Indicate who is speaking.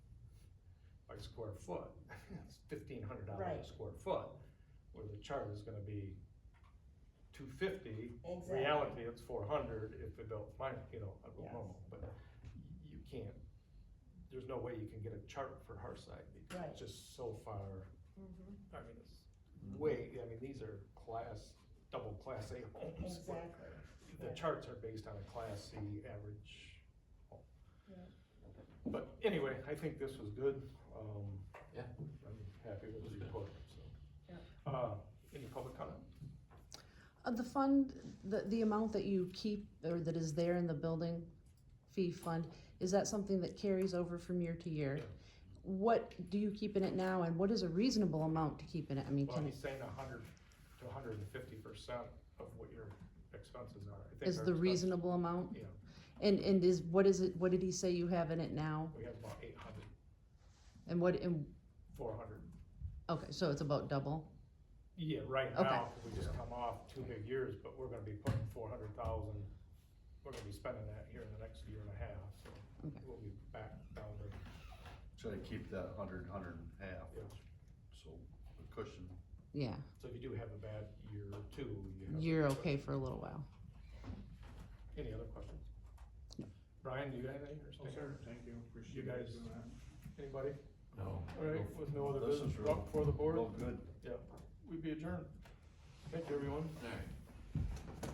Speaker 1: a square foot, it's fifteen hundred dollars
Speaker 2: Right.
Speaker 1: a square foot, where the charge is gonna be two fifty,
Speaker 2: Exactly.
Speaker 1: reality, it's four hundred if they don't find, it, you know, I don't know,
Speaker 2: Yes.
Speaker 1: but you can't, there's no way you can get a chart for Hearthside, because
Speaker 2: Right.
Speaker 1: it's just so far,
Speaker 2: Mhm.
Speaker 1: I mean, it's
Speaker 2: Mm-hmm.
Speaker 1: way, I mean, these are class, double class A homes, but
Speaker 2: Exactly.
Speaker 1: the
Speaker 2: Yeah.
Speaker 1: charts are based on a class C average. home.
Speaker 2: Yeah.
Speaker 1: But anyway, I think this was good, um.
Speaker 3: Yeah.
Speaker 1: I'm happy with
Speaker 3: It was
Speaker 1: the
Speaker 3: good.
Speaker 1: report, so.
Speaker 2: Yeah.
Speaker 1: Uh, any public comment?
Speaker 4: Uh, the fund, the, the amount that you keep, or that is there in the building fee fund, is that something that carries over from year to year?
Speaker 1: Yeah.
Speaker 4: What do you keep in it now, and what is a reasonable amount to keep in it? I mean,
Speaker 1: Well,
Speaker 4: can it,
Speaker 1: he's saying a hundred to hundred and fifty percent of what your expenses are. I think
Speaker 4: is
Speaker 1: our
Speaker 4: the
Speaker 1: expenses-
Speaker 4: reasonable amount?
Speaker 1: Yeah,
Speaker 4: And, and is, what is it, what did he say you have in it now?
Speaker 1: we have about eight hundred,
Speaker 4: And what, and,
Speaker 1: four hundred.
Speaker 4: okay, so it's about double?
Speaker 1: Yeah, right
Speaker 4: Okay.
Speaker 1: now, we just come off two big years, but we're gonna be putting four hundred thousand, we're gonna be spending that here in the next year and a half, so
Speaker 4: Okay.
Speaker 1: we'll be back down to,
Speaker 3: Should I keep that hundred, hundred and a half,
Speaker 1: yeah.
Speaker 3: so a cushion?
Speaker 4: Yeah,
Speaker 1: So if you do have a bad year or two, you have.
Speaker 4: you're okay for a little while.
Speaker 1: Any other questions?
Speaker 4: No.
Speaker 1: Brian, do you have anything or something?
Speaker 5: Oh, thank you, appreciate
Speaker 1: You guys-
Speaker 5: doing that.
Speaker 1: Anybody?
Speaker 3: No.
Speaker 1: All right, with no other
Speaker 3: This is
Speaker 1: business oh,
Speaker 3: real-
Speaker 1: brought before the board,
Speaker 3: Real good.
Speaker 1: we'd be adjourned. Thank you, everyone.
Speaker 3: Alright.